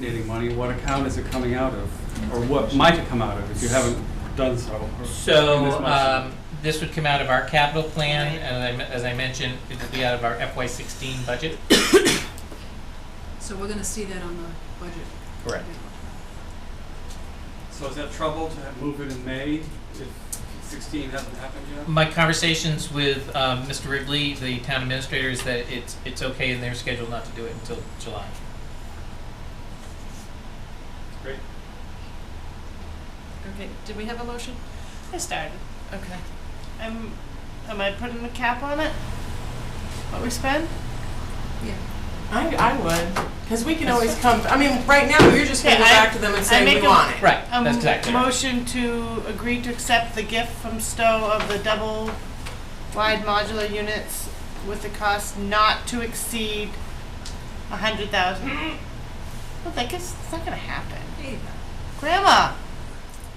donating money, what account is it coming out of? Or what might it come out of if you haven't done so? or in this So, much? um, this would come out of our capital plan, and as I, as I mentioned, it would be out of our FY sixteen budget. So we're gonna see that on the budget. Correct. So is that trouble to have- move it in May if 16 hasn't happened yet? My conversations with, um, Mr. Ridley, the town administrator, is that it's, it's okay in their schedule not to do it until July. Great. Okay, did we have a motion? I started. Okay. I'm, am I putting a cap on it? What we spend? I, I would, because we can always come, I mean, right now, we're just gonna go Okay, I- back to them and say I we make a- want it. Right, Um, that's exactly right. Motion to agree to accept the gift from Stowe of the double wide modular units with the cost not to exceed a hundred thousand. Well, I guess it's not gonna happen. Grandma,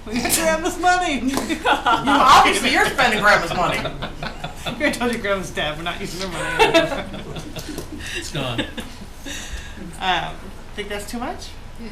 We can grab this money. You- Obviously, you're spending grandma's money. I told you grandma's dead, we're not using her money. It's gone. Um, think that's too much? Yeah,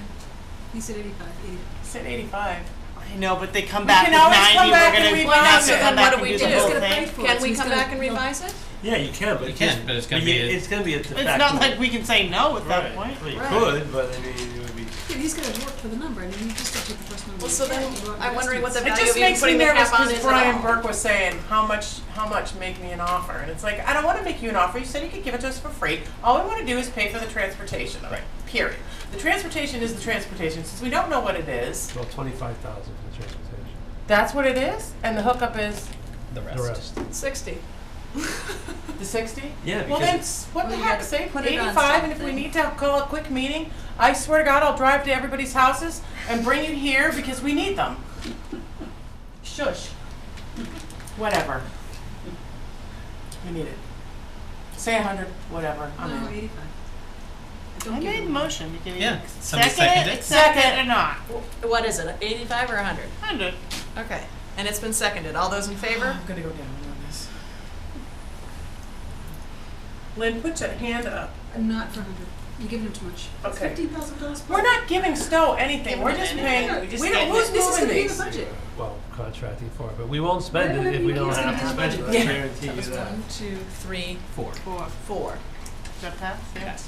he said eighty-five, eighty. Said eighty-five. I know, but they come We back can with always ninety, come back we're and gonna, we're not revise it. gonna come And back what and do we do do? the It's whole gonna pay thing. for it, Can so we he's come gonna- back and revise it? Yeah, you can, but You it can, just- but it's gonna you- be a- It's gonna be a de It's facto- not like we can say no at that Right, point. well, you Right. could, but I mean, it would be. Yeah, he's gonna work for the number, I mean, he just took the first number. Well, he so had, then he wrote I'm wondering what the estimates. It value just of makes me putting the nervous cap on because is at Brian all. Burke was saying, how much, how much, make me an offer, and it's like, I don't wanna make you an offer, you said you could give it to us for free, all we wanna do is pay for the transportation of it, period. The transportation is the transportation, since we don't know what it is, Well, twenty-five thousand for the transportation, that's what it is, and the hookup is The the rest. rest. Sixty. the sixty? Yeah, Well, because then, s- what the Well, you heck, gotta say put it on eighty-five, and if we something. need to call a quick meeting, I swear to God, I'll drive to everybody's houses and bring you here because we need them. Shush. Whatever. We need it. Say a hundred, whatever, I'm No, in. eighty-five. Don't I give made him the motion. You can Yeah, either somebody second seconded it. it, accept it or not. What is it, eighty-five or a hundred? Hundred. Okay, and it's been seconded. All those in favor? I'm gonna go down on this. Lynn, put your hand up. one. Not for a hundred, you're giving him too much. Okay. Fifteen thousand dollars. We're not giving Stowe anything, Give we're them just an paying, idea. we Just don't, get who's This is doing gonna be in the these? budget. well, contracting for it, but we won't spend it if we don't It's gonna have to be in the spend it, I budget. Yeah. guarantee you That was that. one, two, three, Four. Four. four. Is that pass? Yeah. Yes.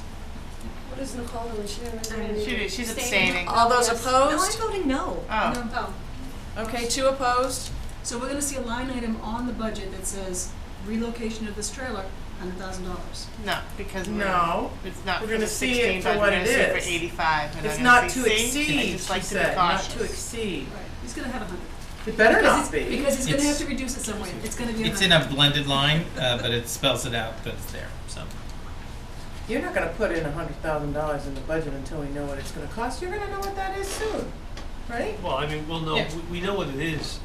What is Nicole doing? She didn't really I'm- read She it. did. She's abstaining. All those No, opposed? I'm voting no. Oh. No, no. Okay, two opposed. So we're gonna see a line item on the budget that says relocation of this trailer, hundred thousand dollars. No, because we're- No. It's not We're for gonna the see sixteen, it for but we're what gonna it see it for is. eighty-five. and It's I'm not gonna to say, see? I exceed, just she like to be said, not to cautious. exceed. Right. He's gonna have a hundred. It better Because not it's- be. Because he's gonna It's- have to reduce it somewhere, it's gonna be a hundred. It's in a blended line, uh, but it spells it out, but it's there, so. You're not gonna put in a hundred thousand dollars in the budget until we know what it's gonna cost, you're gonna know what that is soon, right? Well, I mean, we'll know, Yeah. we- we know what it is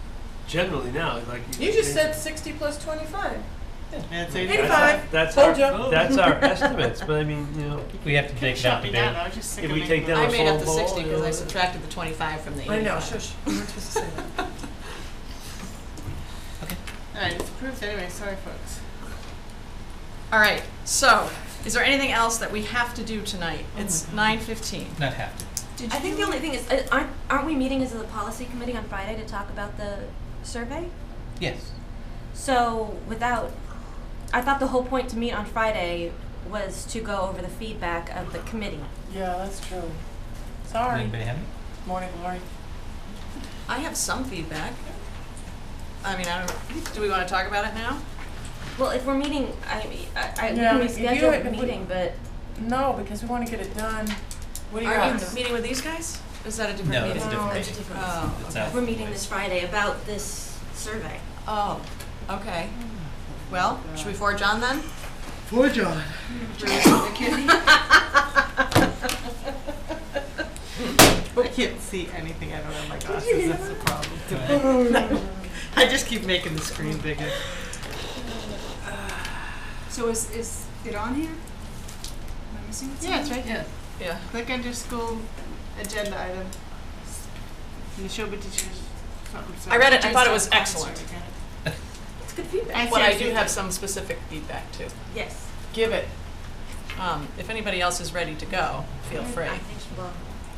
generally now, like. You just said sixty plus twenty-five. That's That's- eighty-five. 85. That's Told our, ya. that's our estimates, but I mean, you know, We have to take that Shut me debate. down. I was just sick If of we making take the- down- I made up the Ball, sixty because I yeah. subtracted the twenty-five from the I know, eighty-five. shush, you weren't supposed to say that. All right, it's approved anyway. Sorry, folks. All right, so is there anything else that we have to do tonight? It's nine fifteen. Not have to. Did I think the you- only thing is, uh, aren't, aren't we meeting as a policy committee on Friday to talk about the survey? Yes. So without, I thought the whole point to meet on Friday was to go over the feedback of the committee. Yeah, that's true. Sorry, Anybody have it? morning glory. I have some feedback. I mean, I don't, do we want to talk about it now? Well, if we're meeting, I, mean, I, I, we Yeah, can if you- reschedule if the we- meeting, but No, because we wanna get it done. What do you Are you guys? meeting with these guys? Is that a different No, meeting? it's a No, different it's a meeting. different- Oh, It's okay. out. we're meeting this Friday about this survey. Oh, okay. Well, should we forge on then? Poor John. I can't see anything. I don't have my glasses. That's the problem. I just keep making the screen bigger. So is, is it on here? Am I missing something? Yeah, it's right there. Yeah. Click under school agenda item. Neshoba teachers, something, I read it. I something. thought it was excellent. It's good feedback. But I do have some specific feedback too. Yes. Give it. Um, if anybody else is ready to go, feel free. I think she will.